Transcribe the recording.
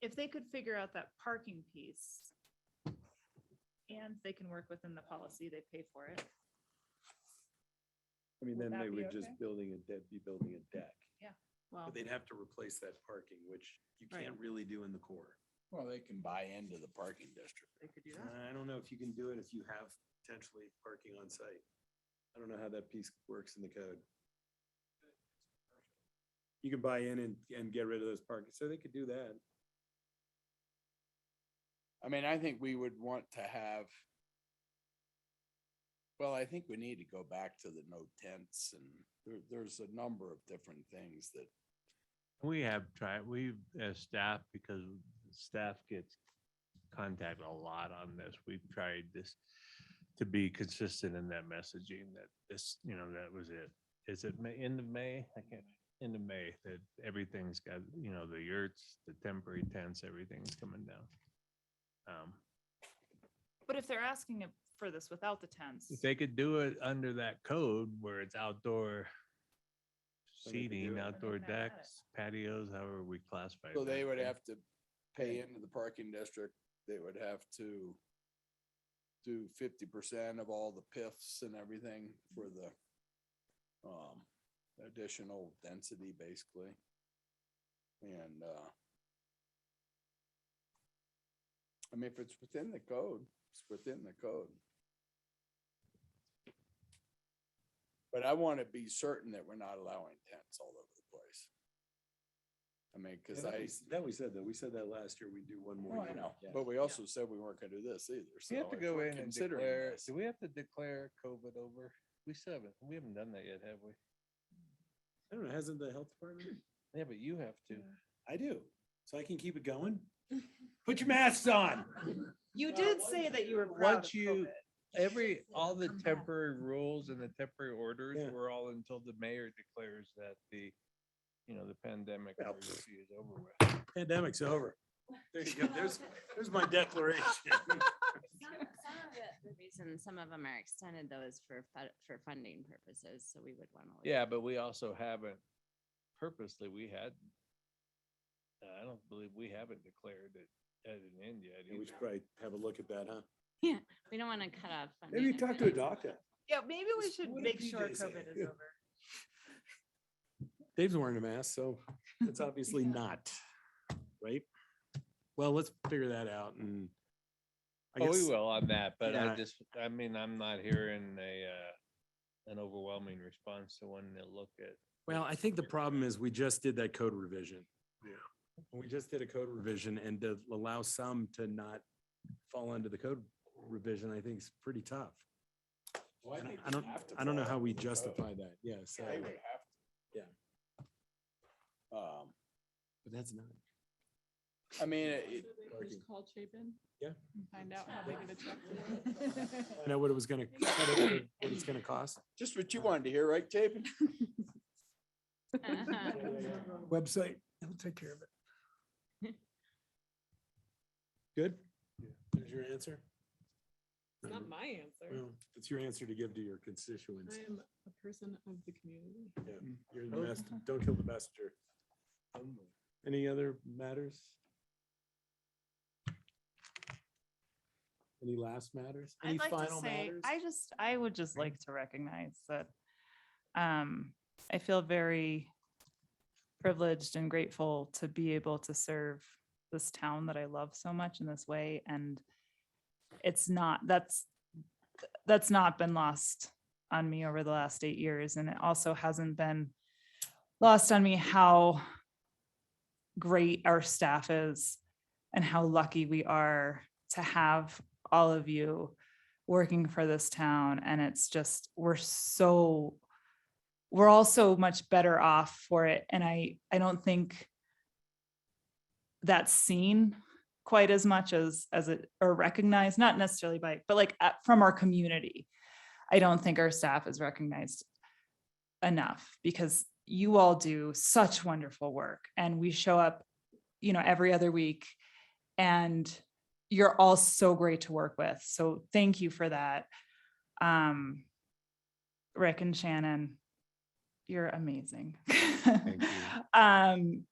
if they could figure out that parking piece. And they can work within the policy, they pay for it. I mean, Would then that they be would just okay? building a deck, be building a deck. Well, But they'd have to replace that parking, which you Right. can't really do in the core. Well, they can buy into the parking district. they could do that. I don't know if you can do it if you have potentially parking on site. I don't know how that piece works in the code. You can buy in and, and get rid of those parking, so they could do that. I mean, I think we would want to have. Well, I think we need to go back to the no tents and there, there's a number of different things that We have tried, we, as staff, because staff gets contacted a lot on this, we've tried this to be consistent in that messaging that this, you know, that was it. Is it May, end of May? I can't, end of May, that everything's got, you know, the yurts, the temporary tents, everything's coming down. Um, But if they're asking it for this without the tents, If they could do it under that code where it's outdoor Then they could do it. seating, Then outdoor they're not at it. decks, patios, however we classify. So they that, would then- have to pay into the parking district, they would have to do fifty percent of all the PIFs and everything for the um, additional density, basically. And, uh, I mean, if it's within the code, it's within the code. But I want to be certain that we're not allowing tents all over the place. I Yeah, mean, because that I. we- That we said, though. We said that last year. We do one more. Well, I year. know, Yeah. but we also said we weren't gonna do this either. We have so to if go we're in and considering declare, this- do we have to declare COVID over? We still haven't, we haven't done that yet, have we? I don't know, hasn't the health department? Yeah, but you have to. I do, so I can keep it going. Put your masks on. you did say that you were proud of Once you, COVID. every, all the Come back. temporary rules and the temporary orders Yeah. were all until the mayor declares that the, you know, the pandemic Well, emergency is over with. Pandemic's over. There you go. There's, there's my declaration. Some some of it- The reason some of them are extended though is for, fu- for funding purposes, so we would want to. Yeah, but we also haven't purposely, we had, I don't believe we haven't declared it at an end yet. Yeah, We either. should probably have a look at that, huh? We don't want to cut off. funding Maybe if talk it to a is- doctor. Yeah, maybe we Just should what did make PJ sure say? COVID is over. Dave's wearing a mask, so it's obviously not, right? Well, let's figure that out and. I Oh, we guess- will on that, but I Yeah. just, I mean, I'm not hearing a, uh, an overwhelming response to one that look at. Well, I think the problem is we just did that code revision. Yeah. We just did a code revision and to allow some to not fall under the code revision, I think is pretty tough. Well, I don't, think I we don't, have to I don't know follow how we the code. justify that. Yeah, so, They would have to. Yeah. Um, but that's not. I mean, it, Parking. Call Chapin. Yeah. and Find out how big of a check. I know what it was gonna, what it's gonna cost. just what you wanted to hear, right, Chapin? Uh-huh. Website, it'll take care of it. Good? There's your answer? It's Not my answer. Well, It's your answer to give to your constituents. I am a person of the community. You're the best, don't kill the messenger. Any other matters? Any last matters? Any I'd like to final say, matters? I just, I would just like to recognize that um, I feel very privileged and grateful to be able to serve this town that I love so much in this way. And it's not, that's, that's not been lost on me over the last eight years. And it also hasn't been lost on me how great our staff is and how lucky we are to have all of you working for this town and it's just we're so we're all so much better off for it and i i don't think that's seen quite as much as as it or recognized not necessarily by but like uh, from our community i don't think our staff is recognized enough because you all do such wonderful work and we show up you know every other week and you're all so great to work with. So thank you for that. Um, Rick and Shannon, you're amazing. you. Um,